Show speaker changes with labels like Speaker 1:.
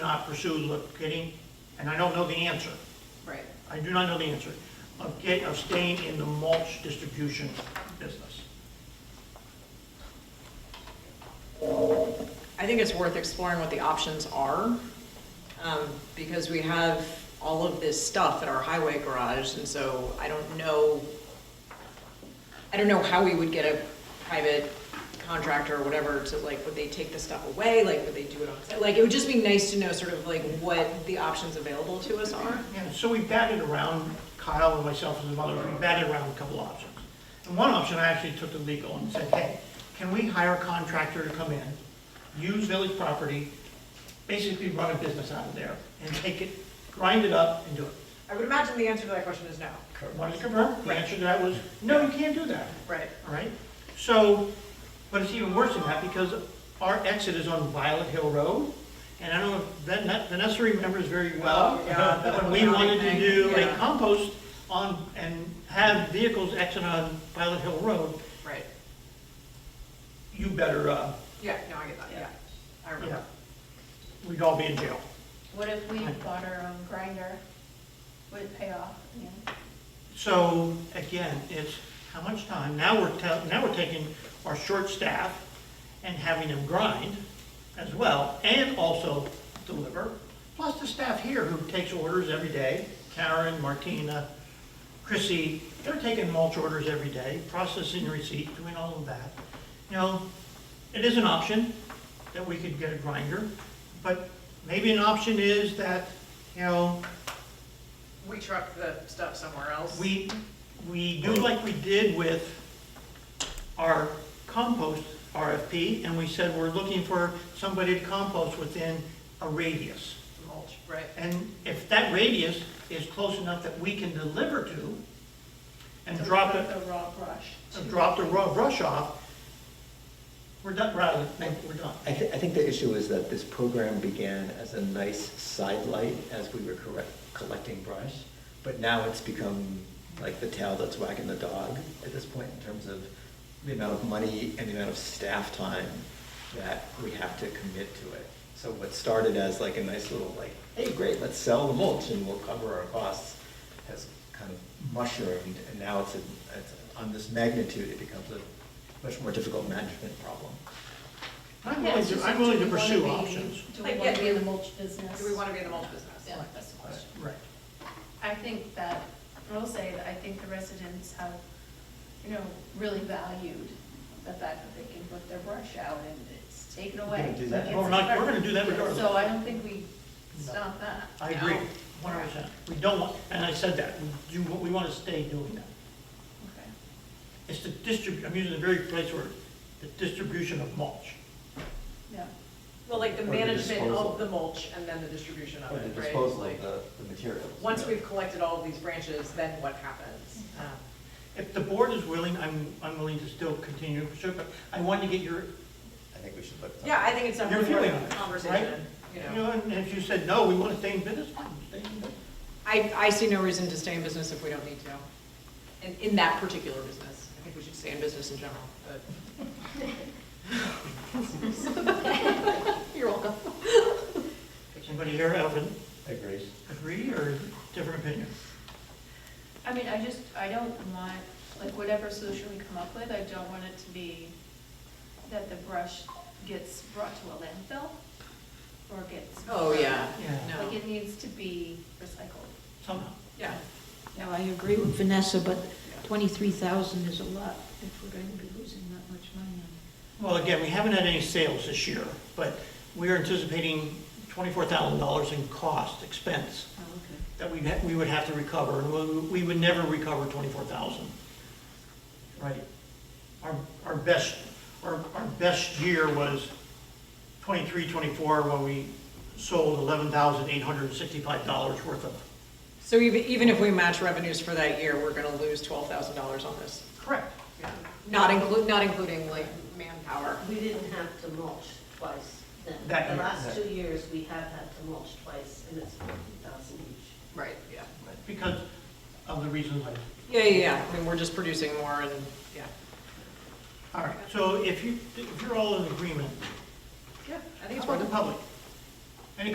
Speaker 1: not pursue look- getting, and I don't know the answer,
Speaker 2: Right.
Speaker 1: I do not know the answer, of get, of staying in the mulch distribution business.
Speaker 2: I think it's worth exploring what the options are, um, because we have all of this stuff at our highway garage, and so I don't know, I don't know how we would get a private contractor or whatever to, like, would they take the stuff away, like, would they do it on site? Like, it would just be nice to know sort of like what the options available to us are.
Speaker 1: Yeah, so we batted around, Kyle and myself and some others, we batted around a couple options. And one option, I actually took to legal and said, hey, can we hire a contractor to come in, use village property, basically run a business out of there, and take it, grind it up and do it.
Speaker 2: I would imagine the answer to that question is no.
Speaker 1: Wanted to confirm, the answer to that was, no, you can't do that,
Speaker 2: Right.
Speaker 1: all right? So, but it's even worse than that, because our exit is on Violet Hill Road, and I don't know, if Ven- Vanessa remembers very well, uh,
Speaker 2: Oh, yeah, that
Speaker 1: when we
Speaker 2: was
Speaker 1: wanted to
Speaker 2: another
Speaker 1: do
Speaker 2: thing,
Speaker 1: a
Speaker 2: yeah.
Speaker 1: compost on, and have vehicles exit on Violet Hill Road,
Speaker 2: Right.
Speaker 1: you better, uh,
Speaker 2: Yeah, no, I get that, yeah. I
Speaker 1: yeah, we'd all be in jail.
Speaker 3: What if we bought our own grinder? Would it pay off? Yeah.
Speaker 1: So, again, it's how much time, now we're, tell- now we're taking our short staff and having them grind as well, and also deliver, plus the staff here who takes orders every day, Karen, Martina, Chrissy, they're taking mulch orders every day, processing receipt, doing all of that. You know, it is an option that we could get a grinder, but maybe an option is that, you know,
Speaker 2: We truck the stuff somewhere else.
Speaker 1: we, we do like we did with our compost RFP, and we said we're looking for somebody to compost within a radius.
Speaker 2: Mulch, right.
Speaker 1: And if that radius is close enough that we can deliver to and drop it,
Speaker 3: The raw brush.
Speaker 1: and drop the raw brush off, we're done, rather, we're done.
Speaker 4: I, thi- I think the issue is that this program began as a nice sidelight as we were correct, collecting brush, but now it's become like the tail that's wagging the dog at this point in terms of the amount of money and the amount of staff time that we have to commit to it. So what started as like a nice little like, hey, great, let's sell the mulch and we'll cover our costs, has kind of mushroomed, and now it's, a- it's on this magnitude, it becomes a much more difficult management problem.
Speaker 1: I'm
Speaker 3: Yeah,
Speaker 1: willing
Speaker 3: it's
Speaker 1: to,
Speaker 3: just,
Speaker 1: I'm
Speaker 3: do
Speaker 1: willing to
Speaker 3: we wanna
Speaker 1: pursue
Speaker 3: be-
Speaker 1: options.
Speaker 3: Do
Speaker 2: Like,
Speaker 3: we want
Speaker 2: yeah,
Speaker 3: to be in
Speaker 2: do-
Speaker 3: the mulch business?
Speaker 2: Do we want to be in the mulch business?
Speaker 3: Yeah, that's the question.
Speaker 1: Right.
Speaker 3: I think that, I will say that I think the residents have, you know, really valued the fact that they can put their brush out and it's taken
Speaker 4: We're gonna
Speaker 3: away.
Speaker 4: do that.
Speaker 3: Like,
Speaker 1: We're
Speaker 3: it's
Speaker 1: not, we're
Speaker 3: covered.
Speaker 1: gonna do that regardless.
Speaker 3: So I don't think we stop that.
Speaker 1: I agree,
Speaker 2: No.
Speaker 1: one hundred percent. We don't want, and I said that, we do, we want to stay doing that.
Speaker 3: Okay.
Speaker 1: It's the distrib, I'm using the very precise word, the distribution of mulch.
Speaker 3: Yeah.
Speaker 2: Well, like the
Speaker 4: Or the
Speaker 2: management
Speaker 4: disposal.
Speaker 2: of the mulch and then the distribution of
Speaker 4: Or the
Speaker 2: it, right?
Speaker 4: disposal
Speaker 2: Like,
Speaker 4: of the, the materials.
Speaker 2: Once we've collected all of these branches, then what happens? Um,
Speaker 1: If the board is willing, I'm, I'm willing to still continue to pursue, it, but I want to get your,
Speaker 4: I think we should look. at that.
Speaker 2: Yeah, I think it's
Speaker 1: Your
Speaker 2: definitely
Speaker 1: feeling
Speaker 2: worth
Speaker 1: on
Speaker 2: a
Speaker 1: it,
Speaker 2: conversation, you
Speaker 1: you
Speaker 2: know.
Speaker 1: know, and if you said, no, we want to stay in business, fine, stay in business.
Speaker 2: I, I see no reason to stay in business if we don't need to, in, in that particular business. I think we should stay in business in general, but. You're welcome.
Speaker 1: Anybody here have an
Speaker 4: Agreed.
Speaker 1: agree or different opinion?
Speaker 3: I mean, I just, I don't want, like, whatever solution we come up with, I don't want it to be that the brush gets brought to a landfill or gets.
Speaker 2: Oh, yeah,
Speaker 1: Yeah.
Speaker 2: no,
Speaker 3: Like, it needs to be recycled.
Speaker 1: Somehow.
Speaker 2: yeah.
Speaker 5: No, I agree with Vanessa, but twenty-three thousand is a lot if we're going to be losing that much money on
Speaker 1: Well, again, we haven't had any sales this year, but we are anticipating twenty-four thousand dollars in cost, expense,
Speaker 5: it. Oh, okay.
Speaker 1: that we, we would have to recover, and we, we would never recover twenty-four thousand. Right? Our, our best, our, our best year was twenty-three, twenty-four, when we sold eleven thousand eight hundred and sixty-five dollars worth of.
Speaker 2: So even, even if we match revenues for that year, we're gonna lose twelve thousand dollars on this.
Speaker 1: Correct.
Speaker 2: Not include, not including like manpower.
Speaker 6: We didn't have to mulch twice then.
Speaker 1: That year,
Speaker 6: The last
Speaker 1: that-
Speaker 6: two years, we have had to mulch twice, and it's forty thousand each.
Speaker 2: Right, yeah.
Speaker 1: Because of the reasons I
Speaker 2: Yeah, yeah, yeah. I mean, we're just producing more and, yeah.
Speaker 1: All right, so if you, if you're all in agreement,
Speaker 2: Yeah, I
Speaker 1: how about the public?